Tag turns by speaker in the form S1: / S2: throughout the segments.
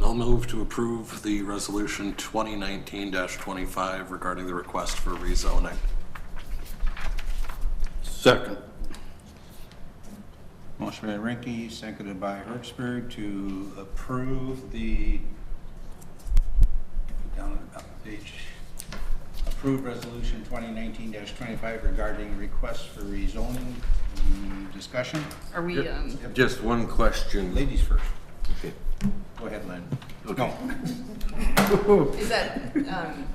S1: move to approve the resolution 2019-25 regarding the request for rezoning.
S2: Second.
S3: Motion by Rinky, seconded by Hertzberg to approve the, down at the bottom of the page, approve resolution twenty nineteen twenty-five regarding requests for rezoning. Mm, Discussion?
S4: Are we, um,
S2: Just one question.
S3: Ladies first.
S2: Okay.
S3: Go ahead, Lynn. No,
S4: is that, um,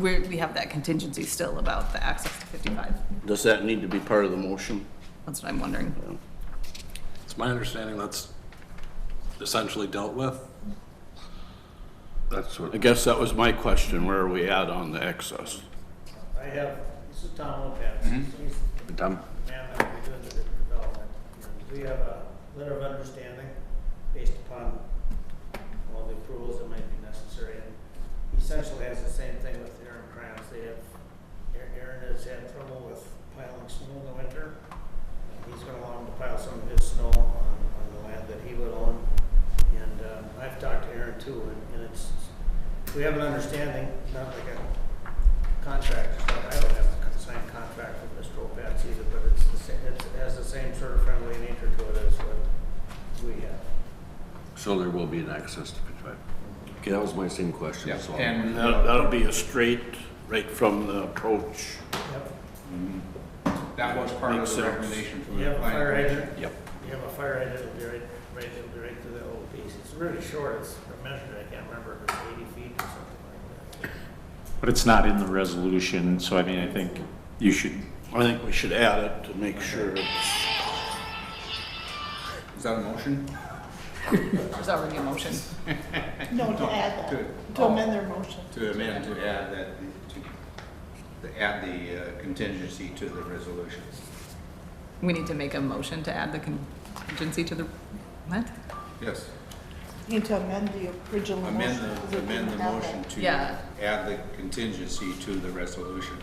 S4: we we have that contingency still about the access to 55?
S2: Does that need to be part of the motion?
S4: That's what I'm wondering.
S1: It's my understanding that's essentially dealt with.
S2: That's what. I guess that was my question. Where are we at on the excess?
S5: I have, this is Tom Lopez. He's
S2: Tom?
S5: the man that we're doing the development. We have a letter of understanding based upon all the approvals that might be necessary. And he Essentially has the same thing with Aaron Krantz. They have, Aaron- Aaron has had trouble with piling snow in the winter. And He's gonna allow him to pile some of his snow on, on the land that he would own. And, um, I've talked to Aaron too, and- and it's, we have an understanding, not like a contract, it's not- I don't have a signed contract with Mr. Opats either, but it's the same, it has the same sort of friendly nature to it as what we have.
S6: So there will be an access to Pittsburgh. Okay, that was my same question, so.
S2: And
S3: uh,
S2: that- that'll be a straight, right from the approach.
S5: Yep.
S3: that was part of
S2: Makes
S3: the
S2: sense.
S3: recommendation from
S5: You
S3: the
S5: have a fire
S3: planning commission.
S5: hydrant,
S2: Yep.
S5: you have a fire hydrant, it'll be right, right, it'll be right through that little piece. It's really short, it's measured, I can't remember if it's eighty feet or something like that.
S7: But it's not in the resolution, so I mean, I think you should,
S2: I think we should add it to make sure.
S3: Is that a motion?
S4: There's already a motion.
S8: No, to add
S3: Good.
S8: that, to amend their motion.
S3: oh, To amend, to add that, to, to add the uh, contingency to the resolution.
S4: We need to make a motion to add the contingency to the, what?
S3: Yes.
S8: You Need to amend the original motion.
S3: Amend
S8: because
S3: the,
S8: it
S3: amend the
S8: didn't have
S3: motion
S8: that.
S3: to
S4: Yeah.
S3: add the contingency to the resolution.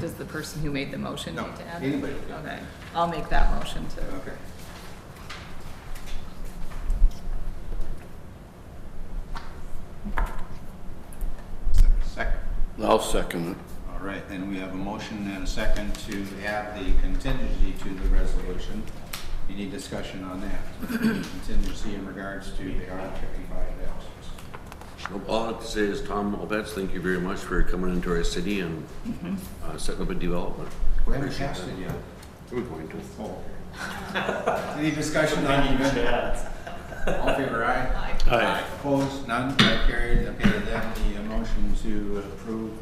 S4: Does the person who made the motion
S3: No,
S4: need to add? it?
S3: anybody can.
S4: Okay, I'll make that motion to
S3: Okay. Second.
S2: I'll second it.
S3: All right, then we have a motion and a second to add the contingency to the resolution. Any discussion on that? Contingency in regards to the R fifty-five access.
S6: All I have to say is, Tom Albets, thank you very much for coming into our city and uh, setting up a development.
S3: We haven't passed it yet.
S6: We're going to.
S3: Oh. Any discussion on the amendment? All in favor aye?
S2: Aye.
S3: Opposed, none, that carried. Okay, then the uh, motion to approve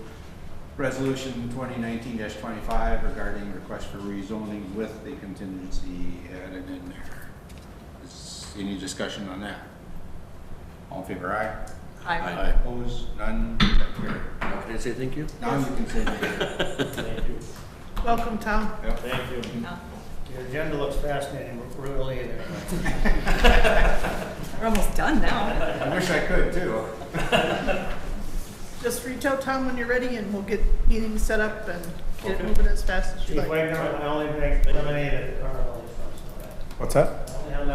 S3: resolution twenty nineteen twenty-five regarding request for rezoning with the contingency added in there. Is any discussion on that? All in favor aye?
S4: I
S2: Aye.
S3: Opposed, none, that carried.
S6: Now, can I say thank you?
S3: Now you can say that.
S5: Thank you.
S8: Welcome, Tom.
S5: Thank you. Your agenda looks fascinating, we're we're really in it.
S4: We're almost done now.
S3: I wish I could too.
S8: Just reach out, Tom, when you're ready, and we'll get meetings set up and get it moving as fast as you
S5: Chief
S8: like.
S5: Wagner, I only make lemonade at Carnival.
S7: what's that?
S5: I only have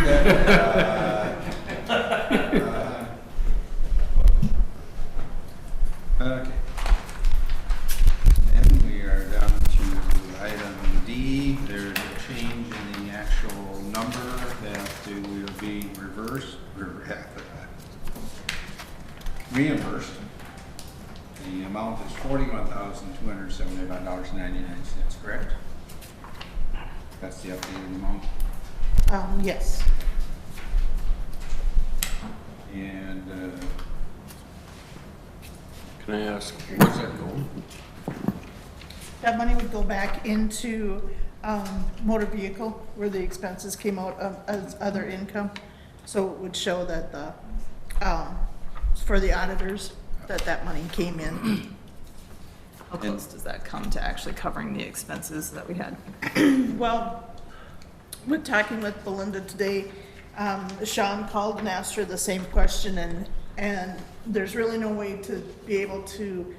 S5: lemonade at Carnival.
S3: Uh, uh, Okay. And we are down to item D. There's a change in the actual number that will be reversed, rever- reimbursed. The amount is forty-one thousand, two hundred seventy-five dollars and ninety-nine cents, correct? That's the updated amount.
S8: Um, yes.
S3: And, uh,
S6: Can I ask, where's that going?
S8: That money would go back into, um, motor vehicle where the expenses came out of, as other income. So it would show that the, um, for the auditors, that that money came in.
S4: How close does that come to actually covering the expenses that we had?
S8: Well, we're talking with Belinda today. Um, Sean called and asked her the same question and, and there's really no way to be able to